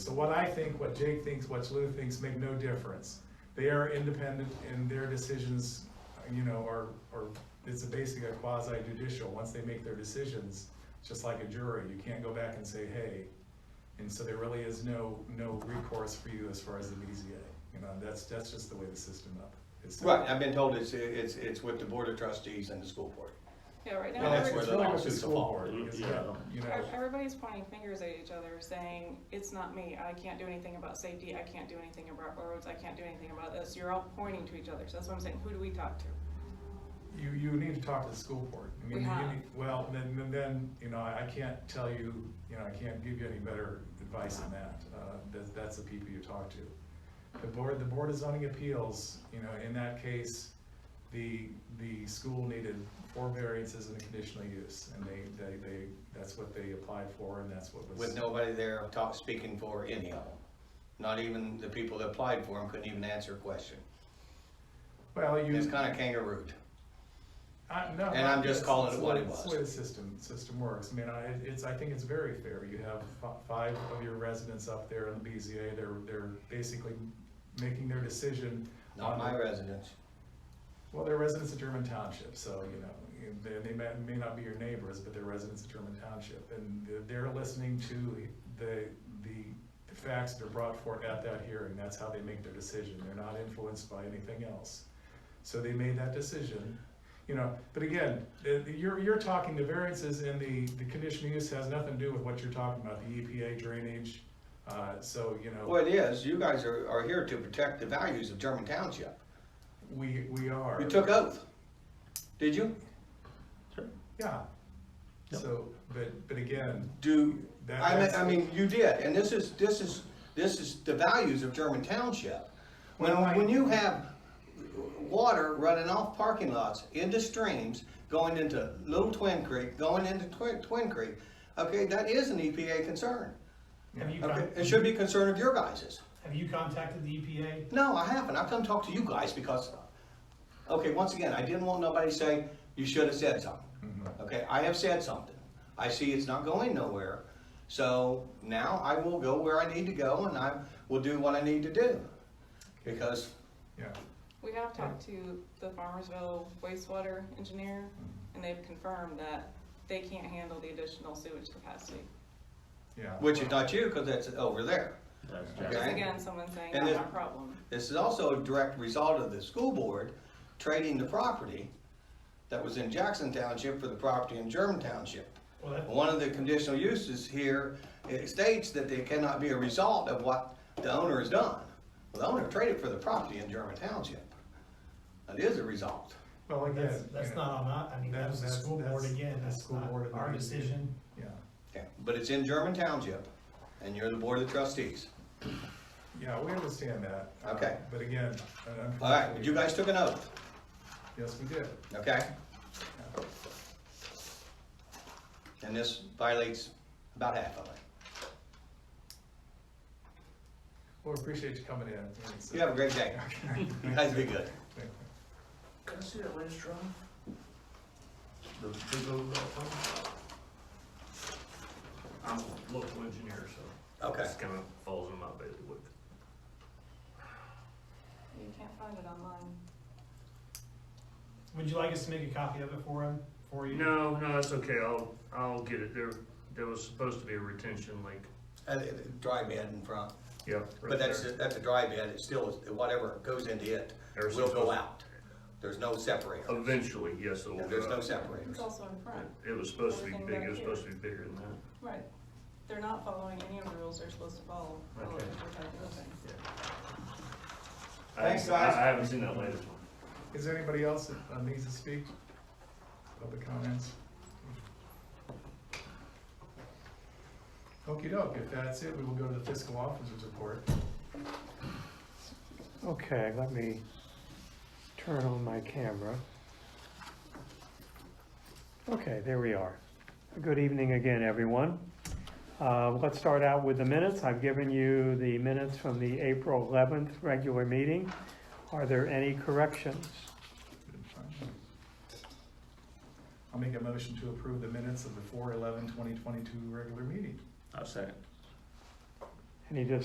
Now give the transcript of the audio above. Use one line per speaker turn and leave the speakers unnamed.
So what I think, what Jake thinks, what Lou thinks make no difference. They are independent and their decisions, you know, are, are, it's basically a quasi judicial. Once they make their decisions, it's just like a jury, you can't go back and say, hey. And so there really is no, no recourse for you as far as the BZA. You know, that's, that's just the way the system up. is set up.
Right, I've been told it's, it's, it's with the board of trustees and the school board.
Yeah, right now,
Well, that's where
every-
It's
the
really with the
lawsuits
school
fall.
board, because,
Yeah.
you know,
ev- everybody's pointing fingers at each other, saying, it's not me, I can't do anything about safety, I can't do anything about roads, I can't do anything about this, you're all pointing to each other, so that's what I'm saying, who do we talk to?
you, you need to talk to the school board. I mean,
We
you
have.
need- Well, then, then- then, you know, I I can't tell you, you know, I can't give you any better advice than that. Uh, That's, that's the people you talk to. The board, the board of zoning appeals, you know, in that case, the, the school needed four variances and a conditional use. And they, they, they, that's what they applied for and that's what was.
With nobody there talk, speaking for any of them. Not even the people that applied for them couldn't even answer a question.
Well, you.
It's kinda kangarooed.
I, no.
And I'm just
that's-
calling it
that's
what
the-
it
That's the
was.
way the system, system works. I mean, I, it's, I think it's very fair. You have fi- five of your residents up there in the BZA, they're, they're basically making their decision.
Not
on-
my residents.
Well, they're residents of German Township, so, you know, they, they may, may not be your neighbors, but they're residents of German Township. And they're- they're listening to the, the the facts that are brought forth at that hearing. That's how they make their decision. They're not influenced by anything else. So they made that decision, you know, but again, the- the- you're, you're talking, the variances in the, the conditional use has nothing to do with what you're talking about, the EPA drainage, uh, so, you know,
Well, it is, you guys are, are here to protect the values of German Township.
we, we are.
You took oath. Did you?
Yeah.
Yep.
So, but, but again,
Do,
That-
I mean,
that's-
I mean, you did, and this is, this is, this is the values of German Township. When,
Well, I-
when you have water running off parking lots into streams, going into Little Twin Creek, going into Twin, Twin Creek, okay, that is an EPA concern.
Have you,
Okay,
con-
it should be a concern of your guys's.
have you contacted the E EPA?
No, I haven't, I've come talk to you guys because, okay, once again, I didn't want nobody to say, you should have said something. Okay, I have said something, I see it's not going nowhere, so now I will go where I need to go and I will do what I need to do. Because,
yeah.
We have talked to the Farmersville wastewater engineer, and they've confirmed that they can't handle the additional sewage capacity.
Yeah.
which is not you, because that's over there.
That's
Okay.
Because
Jackson.
again, someone's saying,
And
not
if-
my problem.
This is also a direct result of the school board trading the property that was in Jackson Township for the property in German Township.
Well, that,
One of the conditional uses here, it states that they cannot be a result of what the owner has done. Well, The owner traded for the property in German Township. That is a result.
Well, again.
that's, that's
you know,
not on us, I mean,
That-
that was the
that's-
school board
that's-
again,
that's
that's
school
not
board and
our
the EPA.
decision.
Yeah,
Okay, But it's in German Township, and you're the board of trustees.
yeah, we understand that. uh,
Okay.
But again. un-
All right, but you
unfortunately-
guys took an oath,
Yes, we did.
okay? And this violates about half of it.
Well, we appreciate you coming in. and so-
You have a great day.
Okay.
You guys be good.
Can I see that last drawing? The big old rock one?
I'm a local engineer, so
Okay.
this kind of falls in my bailiwick.
You can't find it online.
Would you like us to make a copy of it for him, for you?
No, no, that's okay. I'll, I'll get it. There, there was supposed to be a retention lake.
Uh, Dry bed in front.
Yeah.
But that's, that's a dry bed, it's still, whatever goes into it
There's
will go
supposed-
out. There's no separator,
Eventually, yes, it will.
there's
go
no
up.
separators.
It's also in front.
It was supposed to be
Everything
big.
back
It was
here.
supposed to be bigger than that.
Right. They're not following any of the rules they're supposed to follow. follow
Okay.
what they're doing.
I-
Thanks, guys.
I I haven't seen that latest one.
Is there anybody else that uh, needs to speak? Public comments? okey doke, if that's it, we will go to the fiscal officer's report.
Okay, let me turn on my camera. Okay, there we are. Good evening again, everyone. Uh, Let's start out with the minutes. I've given you the minutes from the April 11th regular meeting. Are there any corrections?
I'll make a motion to approve the minutes of the 4/11/2022 regular meeting.
I'll second.
Any discussion